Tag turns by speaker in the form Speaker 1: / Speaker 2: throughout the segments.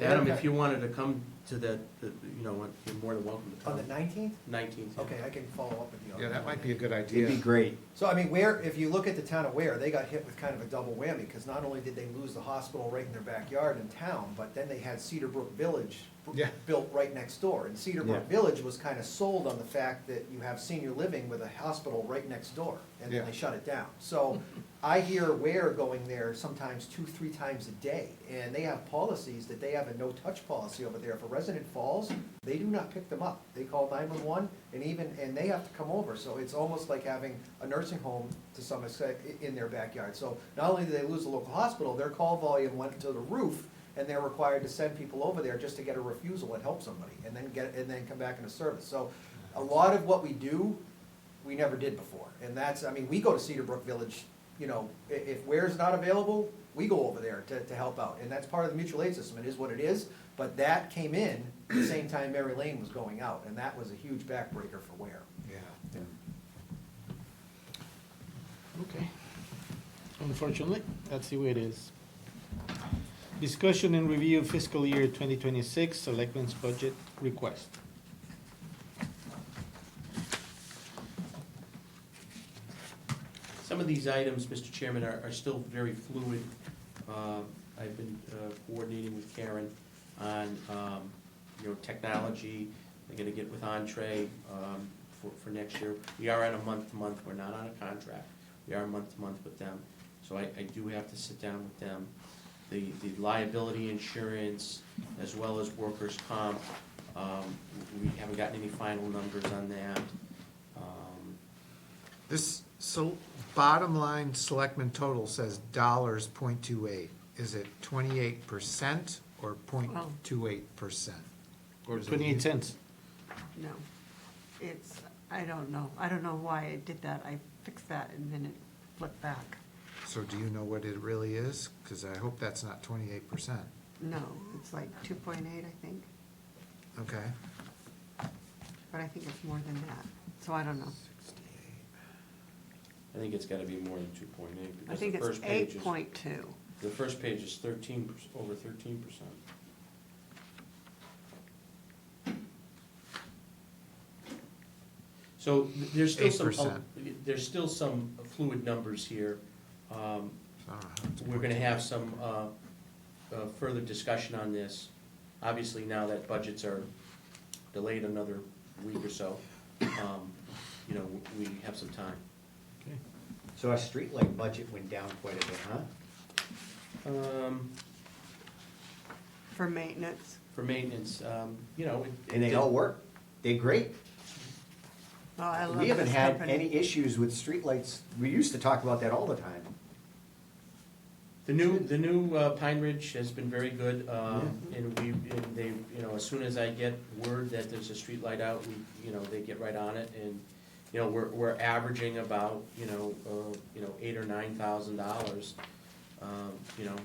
Speaker 1: Adam, if
Speaker 2: Okay.
Speaker 1: you wanted to come to that, the- you know, you're more than welcome to
Speaker 2: On the
Speaker 1: come.
Speaker 2: nineteenth?
Speaker 1: Nineteenth.
Speaker 2: Okay, I can follow up with you on that.
Speaker 3: Yeah, that might be a good
Speaker 4: It'd be
Speaker 3: idea.
Speaker 4: great.
Speaker 2: So, I mean, where, if you look at the town of Ware, they got hit with kind of a double whammy, because not only did they lose the hospital right in their backyard in town, but then they had Cedar Brook Village b-
Speaker 3: Yeah.
Speaker 2: built right next door. And Cedar Brook
Speaker 4: Yeah.
Speaker 2: Village was kind of sold on the fact that you have senior living with a hospital right next door, and then
Speaker 3: Yeah.
Speaker 2: they shut it down. So I hear Ware going there sometimes two, three times a day, and they have policies that they have a no-touch policy over there. If a resident falls, they do not pick them up. They call nine-one-one, and even, and they have to come over, so it's almost like having a nursing home to some extent i- in their backyard. So not only do they lose the local hospital, their call volume went to the roof, and they're required to send people over there just to get a refusal and help somebody, and then get, and then come back into service. So a lot of what we do we never did before. And that's, I mean, we go to Cedar Brook Village, you know, i- if ware's not available, we go over there to, to help out. And that's part of the mutual aid system, it is what it is, but that came in at the same time Mary Lane was going out, and that was a huge backbreaker for where.
Speaker 3: Yeah.
Speaker 5: Okay. Unfortunately, that's the way it is. Discussion and review fiscal year twenty twenty-six selectmen's budget request.
Speaker 1: Some of these items, Mr. Chairman, are, are still very fluid. Uh, I've been uh, coordinating with Karen on, um, you know, technology. I'm gonna get with Entree, um, for, for next year. We are on a month-to-month, we're not on a contract. We are month-to-month with them, so I, I do have to sit down with them. The, the liability insurance, as well as workers' comp, um, we haven't gotten any final numbers on that. Um,
Speaker 3: This, so, bottom line, selectmen total says dollars point two eight. Is it twenty-eight percent or point two eight percent? Or is it-
Speaker 5: Twenty-eight cents.
Speaker 6: No, it's, I don't know, I don't know why I did that, I fixed that and then it flipped back.
Speaker 3: So do you know what it really is? Because I hope that's not twenty-eight percent.
Speaker 6: No, it's like two point eight, I think,
Speaker 3: Okay.
Speaker 6: but I think it's more than that, so I don't know.
Speaker 1: I think it's gotta be more than two point eight,
Speaker 6: I
Speaker 1: because
Speaker 6: think
Speaker 1: the
Speaker 6: it's
Speaker 1: first page
Speaker 6: eight
Speaker 1: is,
Speaker 6: point two,
Speaker 1: the first page is thirteen, perc- over thirteen percent. So th- there's still some,
Speaker 3: 8%.
Speaker 1: there's still some fluid numbers here. Um,
Speaker 3: I don't know how it's
Speaker 1: We're gonna
Speaker 3: 0.28.
Speaker 1: have some uh, uh, further discussion on this. Obviously, now that budgets are delayed another week or so, um, you know, w- we have some time.
Speaker 4: So our streetlight budget went down quite a bit, huh?
Speaker 1: Um,
Speaker 6: for maintenance,
Speaker 1: for maintenance, um, you know. it-
Speaker 4: And they all work. They're great.
Speaker 6: oh, I love
Speaker 4: We haven't
Speaker 6: this
Speaker 4: had
Speaker 6: company.
Speaker 4: any issues with streetlights. We used to talk about that all the time.
Speaker 1: The new, the new uh, Pine Ridge has been very good, um, and we, and they, you know, as soon as I get word that there's a street light out, we, you know, they get right on it, and, you know, we're, we're averaging about, you know, uh, you know, eight or nine thousand dollars, um, you know,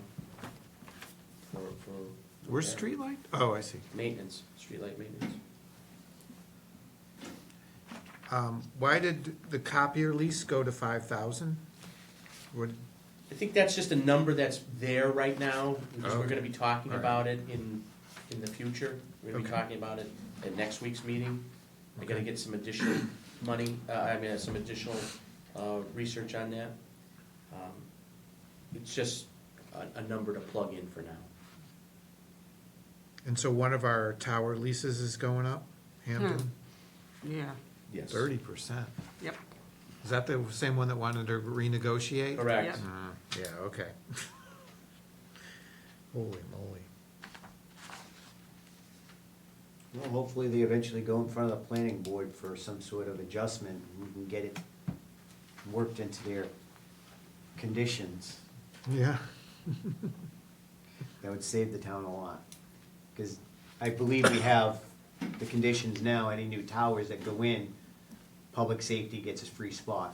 Speaker 1: for, for.
Speaker 3: We're streetlight? Oh, I see.
Speaker 1: Maintenance, streetlight maintenance.
Speaker 3: Um, why did the copier lease go to five thousand? What,
Speaker 1: I think that's just a number that's there right now, because we're
Speaker 3: Okay.
Speaker 1: gonna be talking
Speaker 3: All right.
Speaker 1: about it in, in the future. We're gonna be
Speaker 3: Okay.
Speaker 1: talking about it at next week's meeting. I gotta
Speaker 3: Okay.
Speaker 1: get some additional money, uh, I mean, uh, some additional, uh, research on that. Um, It's just a, a number to plug in for now.
Speaker 3: and so one of our tower leases is going up, Hampton,
Speaker 6: Yeah,
Speaker 1: Yes.
Speaker 3: thirty percent.
Speaker 6: yep,
Speaker 3: Is that the same one that wanted to renegotiate?
Speaker 1: Correct.
Speaker 6: Yep.
Speaker 3: Uh, Yeah, okay. Holy moly.
Speaker 4: Well, hopefully they eventually go in front of the planning board for some sort of adjustment. and We can get it worked into their conditions.
Speaker 3: Yeah.
Speaker 4: That would save the town a lot. Because I believe we have the conditions now, any new towers that go in, public safety gets a free spot,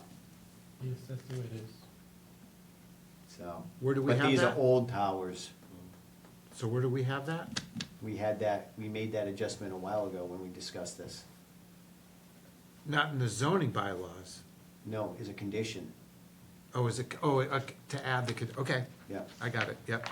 Speaker 5: Yes, that's the way it is.
Speaker 4: so.
Speaker 3: Where do we have
Speaker 4: But these are
Speaker 3: that?
Speaker 4: old towers.
Speaker 3: So where do we have that?
Speaker 4: We had that, we made that adjustment a while ago when we discussed this.
Speaker 3: Not in the zoning bylaws.
Speaker 4: No, is a condition,
Speaker 3: Oh, is it, oh, uh, to add the, con- okay,
Speaker 4: yeah.
Speaker 3: I got it, yep.